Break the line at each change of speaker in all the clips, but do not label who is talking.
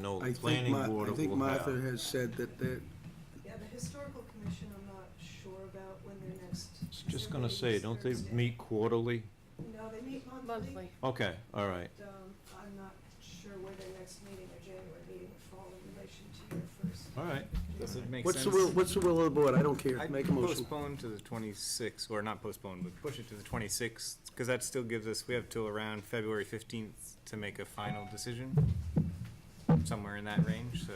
No
I think,
planning
Ma-
board
I think
will have.
Martha has said that they're,
Yeah, the historical commission, I'm not sure about when their next.
I was
is
Just
their
gonna
meeting
say,
is
don't they
Thursday?
meet quarterly?
No, they meet monthly.
Monthly.
Okay, all right.
and, um, I'm not sure where their next meeting, their January meeting would fall in relation to your first.
All right.
Does it make
what's
sense?
the will, what's the will of the board? I don't care.
I'd
Make a motion.
Postpone to the twenty-sixth, or not postpone, but push it to the twenty-sixth, because that still gives us, we have till around February fifteenth to make a final decision, somewhere in that range, so.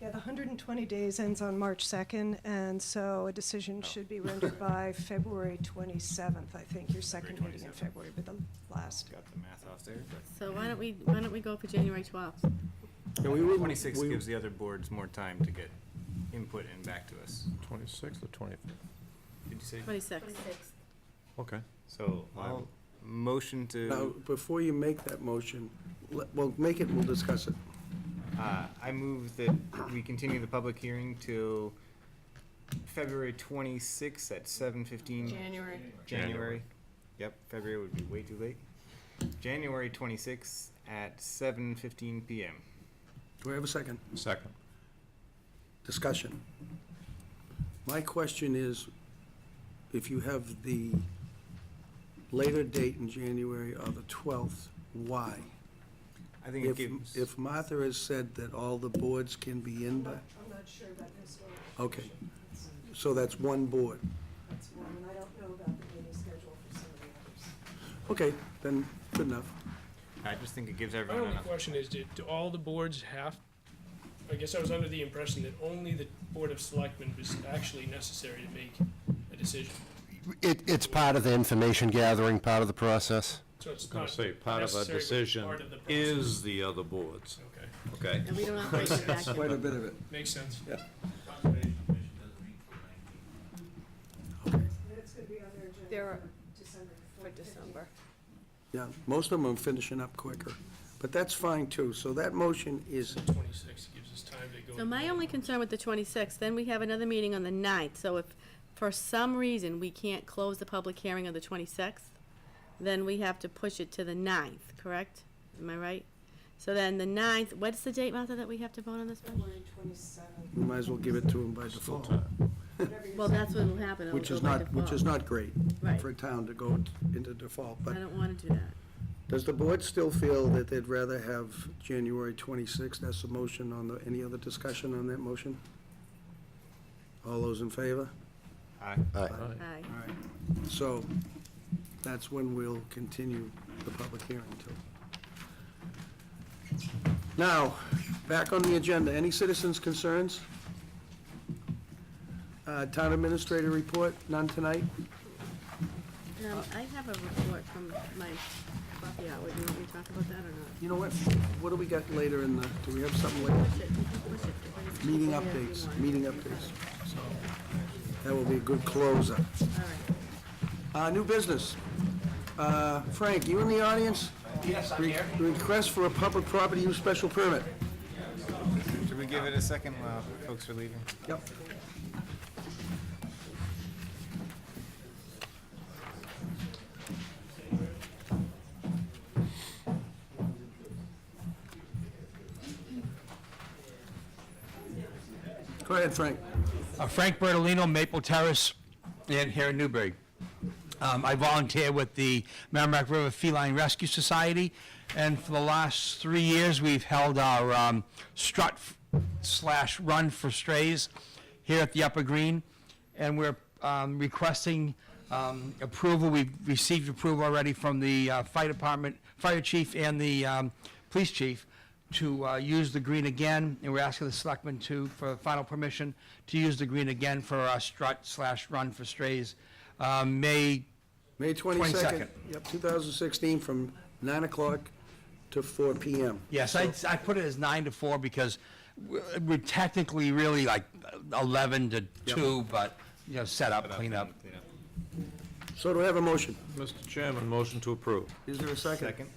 Yeah, the hundred and twenty days ends on March second, and so a decision should be rendered by February twenty-seventh, I think, your second meeting in
27th.
February, but the last.
Got the math off there, but.
So why don't we, why don't we go for January twelfth?
Yeah, we wouldn't-
Twenty-sixth
we-
gives the other boards more time to get input and back to us.
Twenty-sixth or twenty-fifth?
Did you say?
Twenty-sixth.
Okay.
So, I'll
Now,
motion to,
before you make that motion, let- well, make it, we'll discuss it.
uh, I move that we continue the public hearing till February twenty-sixth at seven fifteen
January.
January. Yep, February would be way too late. January twenty-sixth at seven fifteen PM.
Do I have a second?
Second.
Discussion. My question is, if you have the later date in January or the 12th, why?
I think it
If,
gives,
if Martha has said that all the boards can be in,
I'm
by
not, I'm not sure about the historical.
Okay.
commission. That's-
so that's one board.
That's one, and I don't know about the meeting schedule for some of the others.
Okay, then, good enough.
I just think it gives
My
everyone
only
enough.
question is, do, do all the boards have, I guess I was under the impression that only the Board of Selectmen was actually necessary to make a decision.
It, it's part of the information gathering, part of the process.
So it's
Gonna
not
say, part of a
necessary, but
decision
part of the process.
is the other boards,
Okay,
okay?
And we don't operate in a vacuum.
Quite a bit of it.
makes sense.
But it's gonna be on their agenda
There are-
for December.
For
15th.
December.
Yeah, most of them are finishing up quicker, but that's fine too. So that motion is,
Twenty-six gives us time to go.
So my only concern with the twenty-sixth, then we have another meeting on the ninth, so if for some reason we can't close the public hearing on the twenty-sixth, then we have to push it to the ninth, correct? Am I right? So then the ninth, what's the date, Martha, that we have to vote on this one?
February twenty-seventh,
we might as well give it to them by default,
whatever your.
Well, that's what will happen. It'll
which is
go by
not, which is
default.
not great
Right.
for a town to go into default.
I
But
don't wanna do that.
does the board still feel that they'd rather have January 26th? That's the motion on the, any other discussion on that motion? All those in favor?
I,
Aye.
All right. So that's when we'll continue the public hearing till. Now, back on the agenda, any citizens' concerns? Uh, Town administrator report, none tonight?
Um, I have a report from my coffee hour. Do you want me to talk about that or not?
You know what, what do we got later in the, do we have something later?
Push it, you can push it to the next
Meeting
meeting if you
updates,
want.
meeting updates. So That will be a good closer.
All right.
Uh, new business. Uh, Frank, you in the audience? Yes, I'm here. Request for a public property use special permit.
should we give it a second while folks are leaving?
Yep. Go ahead, Frank.
Uh, Frank Bertolino, Maple Terrace, and here in Newbury. Um, I volunteer with the Merrimack River Feline Rescue Society, and for the last three years, we've held our um, strut f- slash run for strays here at the Upper Green, and we're um, requesting um, approval. We've received approval already from the uh, fire department, fire chief, and the um, police chief to uh, use the green again, and we're asking the selectmen to, for final permission, to use the green again for our strut slash run for strays, um, May
May 22nd.
22nd.
Yep, 2016, from 9 o'clock to 4 PM.
Yes, I, I put it as nine to four because we're we're technically really like eleven to two, but, you know, set up, clean up.
Clean up.
So do I have a motion?
Mr. Chairman, motion to approve.
Is there a second?
Second?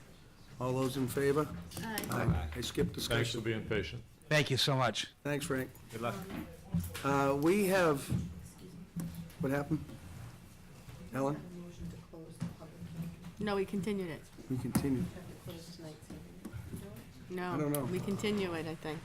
All those in favor?
Aye.
Aye. I skipped
Thanks for
discussion.
being patient.
Thank you so much.
Thanks, Frank.
Good luck.
Uh, We have, what happened? Ellen,
No, we continued it.
we continue.
Close tonight's meeting. No.
I don't know.
We continue it, I think.